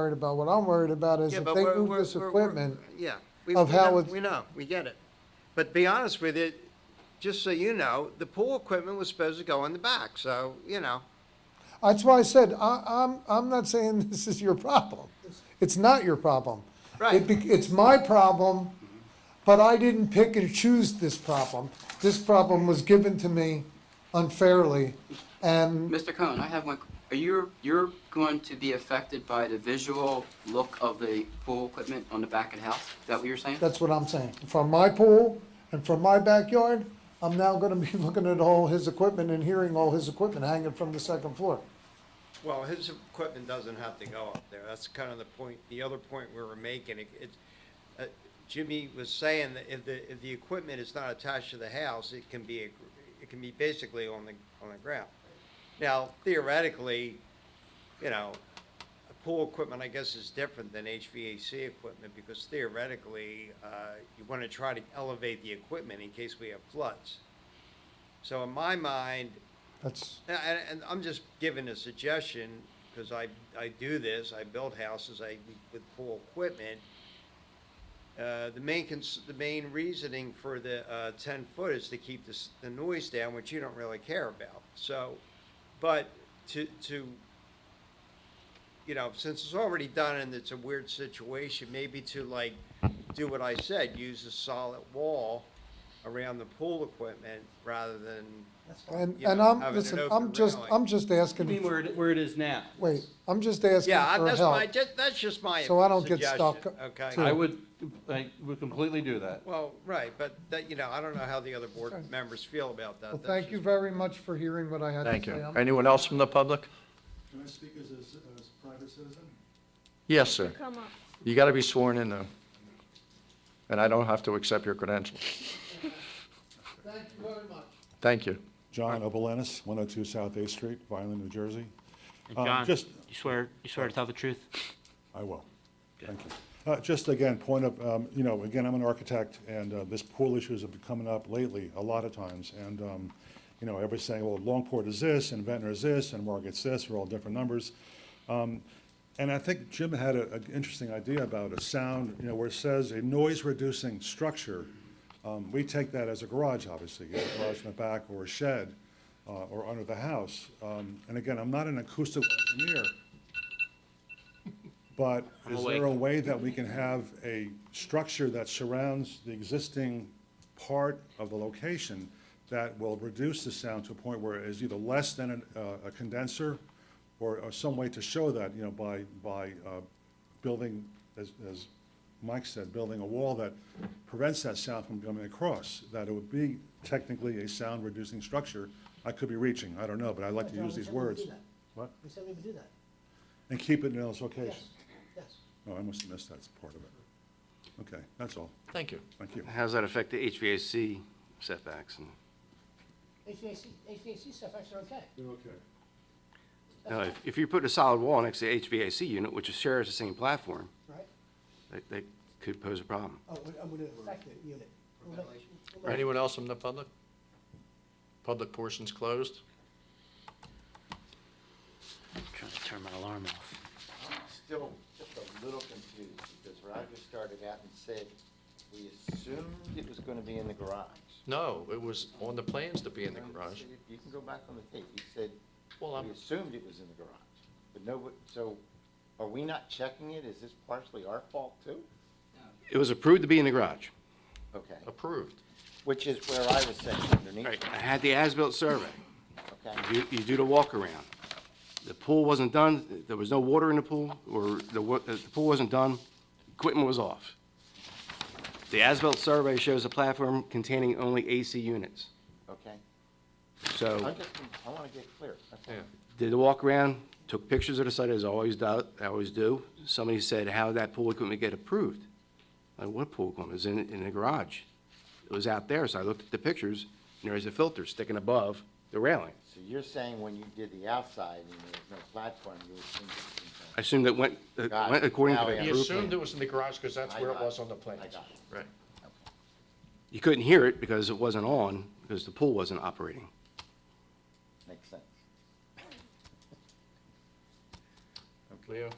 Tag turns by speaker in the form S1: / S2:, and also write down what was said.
S1: worried about. What I'm worried about is
S2: Yeah,
S1: if
S2: but
S1: they
S2: we're-
S1: move
S2: we're-
S1: this
S2: we're- we're-
S1: equipment,
S2: Yeah. we-
S1: of
S2: we
S1: how
S2: know-
S1: it's-
S2: We know, we get it. But to be honest with you, just so you know, the pool equipment was supposed to go in the back, so, you know.
S1: that's why I said, I, I'm, I'm not saying this is your problem. It's not your problem.
S2: Right.
S1: It bec- It's my problem, but I didn't pick and choose this problem. This problem was given to me unfairly, and
S3: Mr. Cohen, I have one, are you, you're going to be affected by the visual look of the pool equipment on the back of the house? Is that what you're saying?
S1: that's what I'm saying. From my pool and from my backyard, I'm now gonna be looking at all his equipment and hearing all his equipment hanging from the second floor.
S2: Well, his equipment doesn't have to go up there. That's kind of the point, the other point we were making. It- it- uh, Jimmy was saying that if the, if the equipment is not attached to the house, it can be, a gr- it can be basically on the, on the ground. Now theoretically, you know, pool equipment, I guess, is different than HVAC equipment because theoretically, uh, you want to try to elevate the equipment in case we have floods. So in my mind,
S1: That's,
S2: and, and- and I'm just giving a suggestion, because I, I do this, I build houses, I, with pool equipment. Uh, the main cons, the main reasoning for the, uh, ten foot is to keep this, the noise down, which you don't really care about, so, but to, to, you know, since it's already done and it's a weird situation, maybe to like, do what I said, use a solid wall around the pool equipment rather than,
S1: and,
S2: you
S1: and
S2: know,
S1: I'm,
S2: having an
S1: listen,
S2: open
S1: I'm just,
S2: railing.
S1: I'm just
S4: I mean,
S1: asking,
S4: where it, where it is now.
S1: wait, I'm just asking
S2: Yeah, I-
S1: for
S2: that's my,
S1: help.
S2: just, that's just my
S1: So I don't get
S2: suggestion,
S1: stuck, too.
S2: Okay.
S4: I would, I would completely do that.
S2: Well, right, but that, you know, I don't know how the other board members feel about that.
S1: Well,
S2: That's
S1: thank you
S2: just-
S1: very much for hearing what I had to say.
S5: Thank you.
S1: I'm-
S5: Anyone else from the public?
S6: Can I speak as a, as a private citizen?
S5: Yes, sir.
S7: Come up.
S5: You got to be sworn in, though. And I don't have to accept your credentials. Thank you very much. Thank you.
S6: John Obelenis, 102 South 8th Street, Violin, New Jersey. Uh,
S8: John,
S6: just-
S8: you swear, you swear to tell the truth?
S6: I will. Thank you. Uh, Just again, point of, um, you know, again, I'm an architect, and uh, this pool issues have been coming up lately, a lot of times. And, um, you know, everybody's saying, well, Longport is this, and Ventnor is this, and Margaret's this, we're all different numbers. Um, And I think Jim had an interesting idea about a sound, you know, where it says a noise-reducing structure. Um, We take that as a garage, obviously, you know, a garage in the back, or a shed, uh, or under the house. Um, And again, I'm not an acoustic engineer, but
S8: I'm
S6: is there a
S8: awake.
S6: way that we can have a structure that surrounds the existing part of the location that will reduce the sound to a point where it is either less than an- uh, a condenser or or some way to show that, you know, by, by uh, building, as, as Mike said, building a wall that prevents that sound from coming across, that it would be technically a sound-reducing structure. I could be reaching, I don't know, but I like to use these words. What?
S9: We said we would do that,
S6: And keep it in its location.
S9: yes.
S6: Oh, I must have missed that part of it. Okay, that's all.
S5: Thank you.
S6: Thank you.
S10: How's that affect the HVAC setbacks? and-
S9: HVAC, HVAC stuff, actually, okay.
S6: okay.
S10: Now, if- if you put a solid wall next to the HVAC unit, which shares the same platform,
S9: Right.
S10: that, that could pose a problem.
S9: Oh, we- I'm gonna affect the unit. We'll make- we'll make-
S5: Anyone else from the public? Public portion's closed.
S8: I'm Trying to turn my alarm off.
S11: still just a little confused, because Roger started out and said, we assumed it was gonna be in the garage.
S5: No, it was on the plans to be in the garage.
S11: You can go back on the tape, you said,
S5: Well, I'm-
S11: we assumed it was in the garage, but no, so are we not checking it? Is this partially our fault too?
S10: It was approved to be in the garage.
S11: Okay,
S5: Approved.
S11: which is where I was saying underneath,
S10: Right, I had the as-built survey.
S11: okay?
S10: You, you do the walk-around. The pool wasn't done, there was no water in the pool, or the, wa- uh, the pool wasn't done, equipment was off. The as-built survey shows a platform containing only AC units.
S11: Okay,
S10: So
S11: I'm just, I wanna get clear, that's all.
S5: Yeah.
S10: did a walk-around, took pictures of the site as I always do, I always do. Somebody said, how did that pool equipment get approved? Like, what pool equipment? It was in, in the garage. It was out there, so I looked at the pictures, and there is a filter sticking above the railing.
S11: So you're saying when you did the outside and there was no platform, you assumed it was in the
S10: I assume that went, that
S11: Got it.
S10: went according to
S11: Now
S10: the
S11: we
S5: He
S10: approved.
S5: assumed it was in the garage because that's where it was on the
S11: I
S5: plans.
S11: got it.
S5: Right.
S10: You couldn't hear it because it wasn't on, because the pool wasn't operating.
S11: Makes sense.
S5: Leo?